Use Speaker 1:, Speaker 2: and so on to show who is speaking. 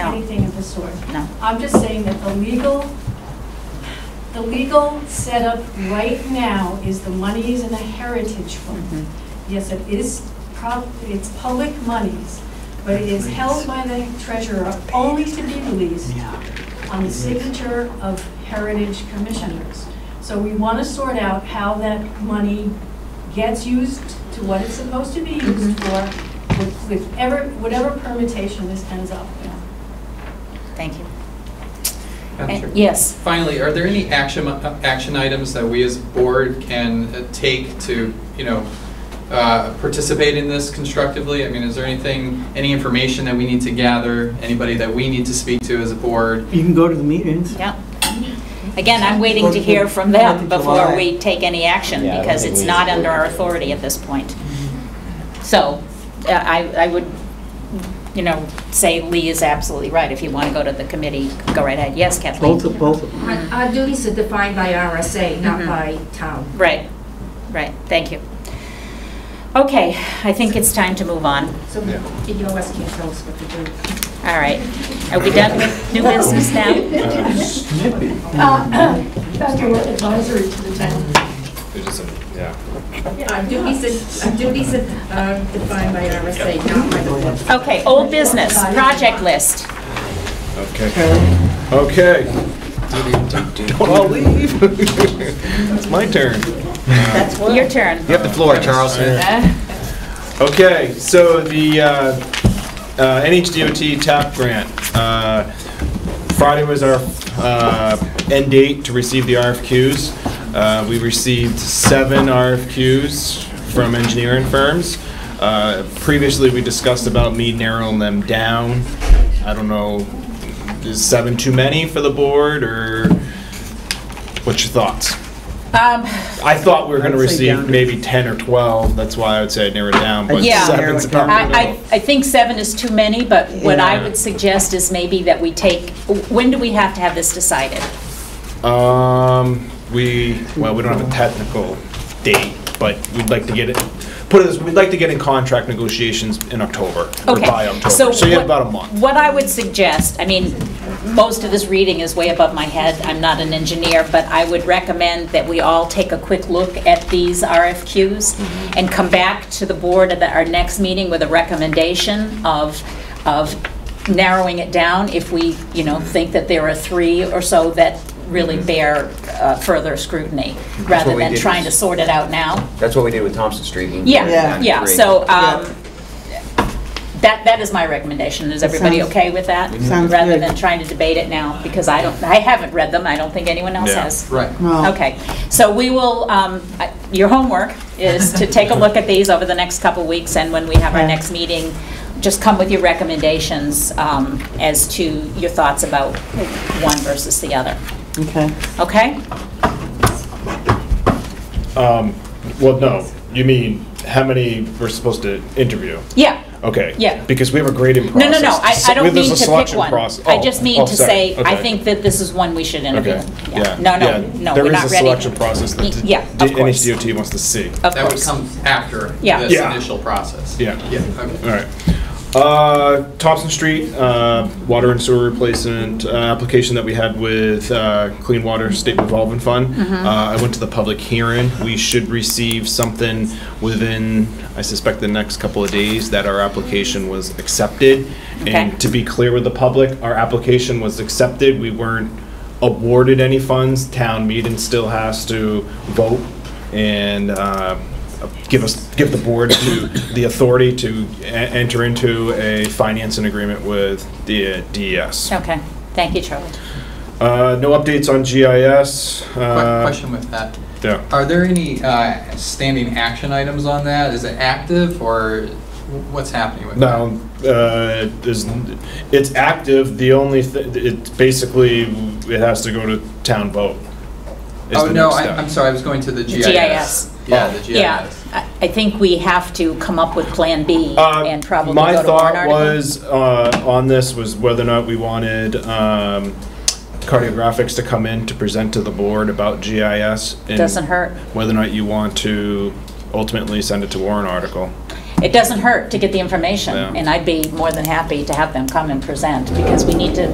Speaker 1: anything of the sort.
Speaker 2: No.
Speaker 1: I'm just saying that the legal, the legal setup right now is the money is in a heritage fund. Yes, it is, prob- it's public monies, but it is held by the treasurer only to be released on the signature of heritage commissioners. So we want to sort out how that money gets used to what it's supposed to be used for, with- with ever, whatever permutation this ends up with.
Speaker 2: Thank you.
Speaker 3: Madam
Speaker 2: And-
Speaker 3: Chair.
Speaker 2: Yes,
Speaker 3: Finally, are there any action, uh, action items that we as board can uh, take to, you know, uh, participate in this constructively? I mean, is there anything, any information that we need to gather, anybody that we need to speak to as a board?
Speaker 4: You can go to the meetings.
Speaker 2: yeah. Again, I'm waiting to hear from them
Speaker 4: Fourth of
Speaker 2: before
Speaker 4: July.
Speaker 2: we take any action,
Speaker 5: Yeah, I don't
Speaker 2: because
Speaker 5: think
Speaker 2: it's
Speaker 5: we-
Speaker 2: not under our authority at this point. So uh, I, I would, you know, say Lee is absolutely right. If you want to go to the committee, go right ahead. Yes, Kathleen?
Speaker 4: Both of, both of them.
Speaker 6: Our our duties are defined by RSA, not
Speaker 2: Mhm.
Speaker 6: by town.
Speaker 2: Right, right, thank you. Okay, I think it's time to move on.
Speaker 6: So
Speaker 3: Yeah.
Speaker 6: the EOS can't tell us what to do.
Speaker 2: All right. Are we done with new business now?
Speaker 7: Uh, Federal advisory to the town.
Speaker 5: There's just some, yeah.
Speaker 6: Our duties are, our duties are um, defined by RSA, not by the board.
Speaker 2: Okay, old business, project list.
Speaker 5: Okay. Okay. I'll leave. It's my turn.
Speaker 2: Your turn.
Speaker 5: You have the floor, Charles.
Speaker 2: Uh,
Speaker 5: Okay, so the uh, uh, NHDOT TAP grant. uh, Friday was our uh, end date to receive the RFQs. Uh, We received seven RFQs from engineering firms. Uh, Previously, we discussed about me narrowing them down. I don't know, is seven too many for the board, or what's your thoughts?
Speaker 2: um,
Speaker 5: I thought we were going to
Speaker 4: I'd say
Speaker 5: receive
Speaker 4: down to-
Speaker 5: maybe 10 or 12, that's why I would say I narrowed it down, but
Speaker 2: Yeah.
Speaker 5: seven's about the
Speaker 2: I, I,
Speaker 5: middle.
Speaker 2: I think seven is too many, but what I
Speaker 5: Yeah.
Speaker 2: would suggest is maybe that we take, when do we have to have this decided?
Speaker 5: Um, we, well, we don't have a technical date, but we'd like to get it, put it, as- we'd like to get in contract negotiations in October, or
Speaker 2: Okay.
Speaker 5: by October, so you have
Speaker 2: what-
Speaker 5: about a month.
Speaker 2: What I would suggest, I mean, most of this reading is way above my head, I'm not an engineer, but I would recommend that we all take a quick look at these RFQs and come back to the board at the- our next meeting with a recommendation of, of narrowing it down if we, you know, think that there are three or so that really bear uh, further scrutiny, rather
Speaker 8: what we
Speaker 2: than
Speaker 8: did.
Speaker 2: trying to sort it out now.
Speaker 8: That's what we did with Thompson Street. You narrowed it
Speaker 2: Yeah,
Speaker 8: down to
Speaker 2: yeah,
Speaker 8: three.
Speaker 2: so, um, that, that is my recommendation. Is everybody
Speaker 4: sounds-
Speaker 2: okay with that?
Speaker 4: sounds
Speaker 2: Rather
Speaker 4: good.
Speaker 2: than trying to debate it now, because I don't, I haven't read them, I don't think anyone else
Speaker 5: Yeah.
Speaker 2: has.
Speaker 3: Right.
Speaker 4: Well,
Speaker 2: Okay, so we will, um, I- your homework is to take a look at these over the next couple weeks, and when we have our
Speaker 4: Yeah.
Speaker 2: next meeting, just come with your recommendations um, as to your thoughts about one versus the other,
Speaker 4: Okay.
Speaker 2: okay?
Speaker 5: Um, well, no, you mean, how many we're supposed to interview?
Speaker 2: Yeah,
Speaker 5: Okay.
Speaker 2: Yeah.
Speaker 5: Because we have a grading process.
Speaker 2: no, no, no, I I
Speaker 5: We-
Speaker 2: don't
Speaker 5: there's
Speaker 2: mean
Speaker 5: a
Speaker 2: to pick
Speaker 5: selection
Speaker 2: one.
Speaker 5: process.
Speaker 2: I
Speaker 5: Oh,
Speaker 2: just mean
Speaker 5: oh,
Speaker 2: to
Speaker 5: sorry.
Speaker 2: say, I
Speaker 5: Okay.
Speaker 2: think that this is one we should interview.
Speaker 5: Okay, yeah.
Speaker 2: No, no,
Speaker 5: yeah.
Speaker 2: no, we're not ready.
Speaker 5: There is a selection process that d-
Speaker 2: Yeah,
Speaker 5: d-
Speaker 2: of course.
Speaker 5: NHDOT wants to see.
Speaker 2: Of
Speaker 3: That would
Speaker 2: course.
Speaker 3: come after
Speaker 2: Yeah.
Speaker 3: this
Speaker 5: Yeah.
Speaker 3: initial process.
Speaker 5: Yeah.
Speaker 3: Yeah, okay.
Speaker 5: All right. Uh, Thompson Street, uh, water and sewer replacement, uh, application that we had with, uh, Clean Water State Revolving Fund. Uh, I went to the public hearing. We should receive something within, I suspect, the next couple of days that our application was accepted.
Speaker 2: Okay.
Speaker 5: And to be clear with the public, our application was accepted. We weren't awarded any funds. Town meeting still has to vote and uh, give us, give the board to, the authority to e- enter into a financing agreement with the uh, DES.
Speaker 2: Okay, thank you, Charlie.
Speaker 5: Uh, No updates on GIS.
Speaker 3: Que-
Speaker 5: uh,
Speaker 3: Question with that.
Speaker 5: Yeah.
Speaker 3: Are there any uh, standing action items on that? Is it active or what's happening with that?
Speaker 5: No, uh, there's, it's active. The only, thi- it's basically, it has to go to town vote. is
Speaker 3: Oh,
Speaker 5: the
Speaker 3: no,
Speaker 5: next
Speaker 3: I-
Speaker 5: step.
Speaker 3: I'm sorry, I was going to the GIS.
Speaker 2: GIS.
Speaker 3: Yeah, the
Speaker 2: Yeah,
Speaker 3: GIS.
Speaker 2: I I think we have to come up with Plan B
Speaker 5: Uh,
Speaker 2: and probably
Speaker 5: My
Speaker 2: go to warrant
Speaker 5: thought
Speaker 2: article.
Speaker 5: was, uh, on this, was whether or not we wanted um, cardiographics to come in to present to the board about GIS. and
Speaker 2: Doesn't hurt.
Speaker 5: Whether or not you want to ultimately send it to warrant article.
Speaker 2: It doesn't hurt to get the information,
Speaker 5: Yeah.
Speaker 2: and I'd be more than happy to have them come and present, because we need to